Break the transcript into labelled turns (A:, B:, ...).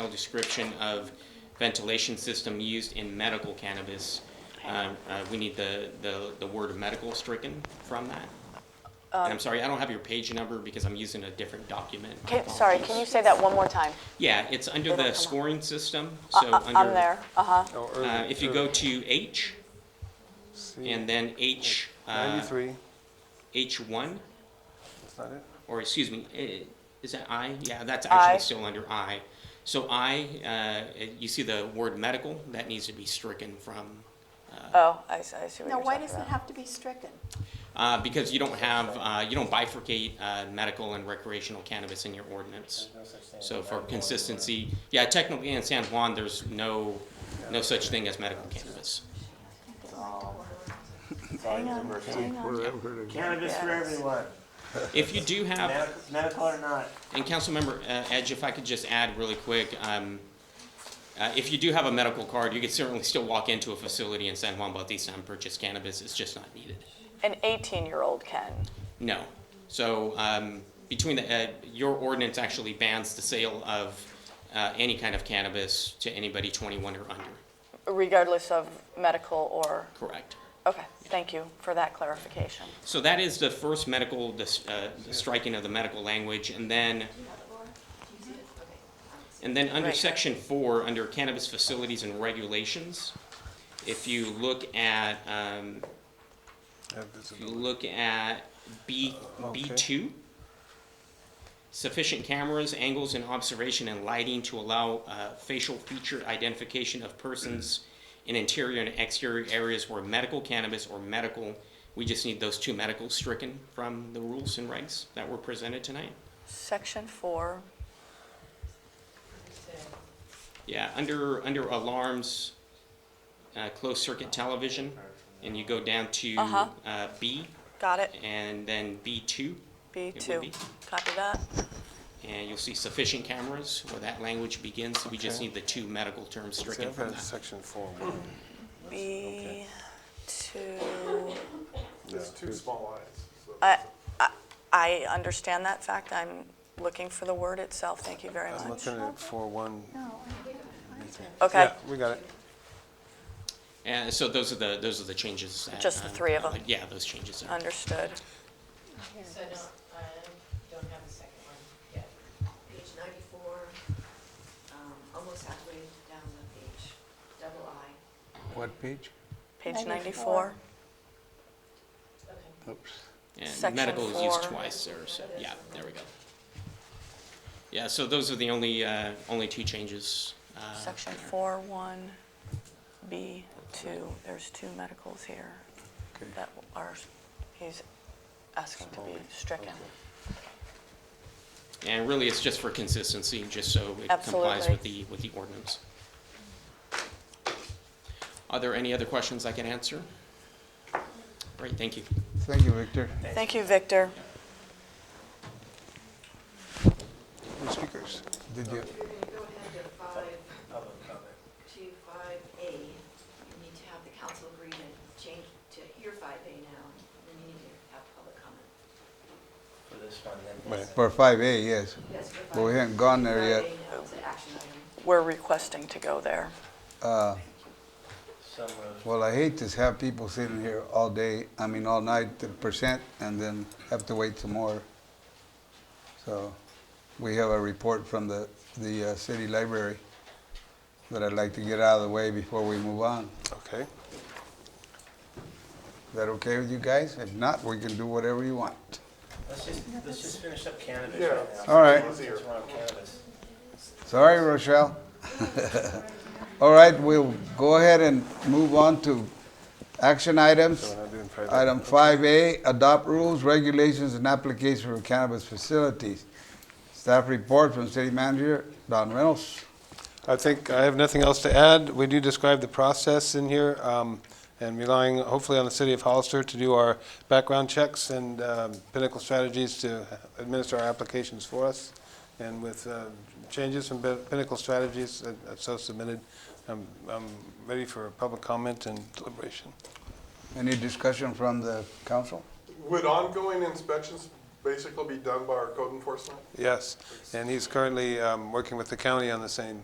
A: detailed description of ventilation system used in medical cannabis. Um, uh, we need the, the, the word medical stricken from that.
B: Um,
A: And I'm sorry, I don't have your page number because I'm using a different document. My
B: Can- Sorry, can you
A: apologies.
B: say that one more time?
A: Yeah, it's under
B: They don't
A: the
B: come up.
A: scoring system,
B: Uh,
A: so
B: uh,
A: under.
B: I'm there, uh-huh.
C: Oh,
A: Uh, if you go to H
C: C,
A: and then H, uh,
C: Ninety-three,
A: H1,
C: that's not it?
A: or excuse me, eh, is that I? Yeah, that's
B: I.
A: actually still under I. So I, uh, eh, you see the word medical, that needs to be stricken from,
B: Oh, I s- I see what
D: Now,
B: you're
D: why
B: talking
D: does it
B: about.
D: have to be stricken?
A: uh, because you don't have, uh, you don't bifurcate uh, medical and recreational cannabis in your ordinance. So for consistency, yeah, technically in San Juan, there's no, no such thing as medical cannabis.
E: Hang on, hang on. Cannabis for
B: Yes.
E: everyone,
A: If you do have.
E: Medi- medical or not.
A: And Councilmember uh, Edge, if I could just add really quick, um, uh, if you do have a medical card, you could certainly still walk into a facility in San Juan Bautista and um, purchase cannabis. It's just not needed.
B: An 18-year-old can.
A: No. So um, between the, uh, your ordinance actually bans the sale of uh, any kind of cannabis to anybody 21 or under.
B: regardless of medical or,
A: Correct.
B: okay, thank you for that clarification.
A: So that is the first medical, the, s- uh, the striking of the medical language, and then, and then under
B: Right.
A: section four, under cannabis facilities and regulations, if you look at, um, if you look at B, B two, sufficient cameras, angles, and observation and lighting to allow uh, facial feature identification of persons in interior and exterior areas where medical cannabis or medical, we just need those two medicals stricken from the rules and regs that were presented tonight.
B: Section four,
A: Yeah, under, under alarms, uh, closed circuit television, and you go down to
B: Uh-huh.
A: uh, B
B: got it,
A: and then B two, It would be.
B: B2, copy that.
A: and you'll see sufficient cameras where that language begins. We just
C: Okay.
A: need the two medical terms
C: See,
A: stricken
C: I've
A: from
C: had
A: that.
C: section four, one.
B: B2,
C: It's too small.
B: I, I- I understand that fact, I'm looking for the word itself, thank you very
C: I'm
B: much.
C: looking at four, one.
D: No,
B: Okay,
C: Yeah, we got it.
A: And Uh, so those are the, those are the changes. that,
B: Just the
A: um,
B: three of them.
A: uh, Yeah, those changes. are-
B: understood.
F: So no, I don't have the second one yet. Page ninety-four, um, almost halfway down the page, double I.
C: What page?
B: Page 94,
D: 94.
F: Okay.
C: Oops.
A: And
B: Section
A: medical is used
B: four.
A: twice or so, yeah, there we go. Yeah, so those are the only, uh, only two changes. uh,
B: section
A: there.
B: 4, 1, B2, there's two medicals here that are, he's asking to be stricken.
A: And really, it's just for consistency, just so it complies
B: Absolutely.
A: with the, with the ordinance. Are there any other questions I can answer? Great, thank you.
C: Thank you, Victor.
B: Thank you, Victor.
C: Who's speakers? Did you,
F: When you go ahead to five, to five A, you need to have the council agree to change to hear five A now, and then you need to have public comment.
E: For this one,
G: Right, For five A, yes.
F: Yes, for
G: But we
F: 5A.
G: haven't gone there yet.
F: 5A now is an action item.
B: We're requesting to go there.
G: Uh,
E: so moved.
G: Well, I hate to have people sitting here all day, I mean, all night to present, and then have to wait some more. So, we have a report from the, the uh, city library that I'd like to get out of the way before we move on.
C: okay.
G: Is that okay with you guys? If not, we can do whatever you want.
E: Let's just, let's just finish up cannabis right now.
G: All right.
E: Since we're on cannabis.
G: Sorry, Rochelle. All right, we'll go ahead and move on to action items.
C: So we're not doing five A.
G: Item 5A, adopt rules, regulations, and applications for cannabis facilities. Staff report from City Manager Don Reynolds.
C: I think I have nothing else to add. We do describe the process in here, um, and relying hopefully on the city of Hollister to do our background checks and um, Pinnacle Strategies to administer our applications for us. And with uh, changes from Pin- Pinnacle Strategies that- that's so submitted, I'm I'm ready for public comment and deliberation.
G: Any discussion from the council?
H: Would ongoing inspections basically be done by our code enforcement?
C: Yes, and he's currently um, working with the county on the same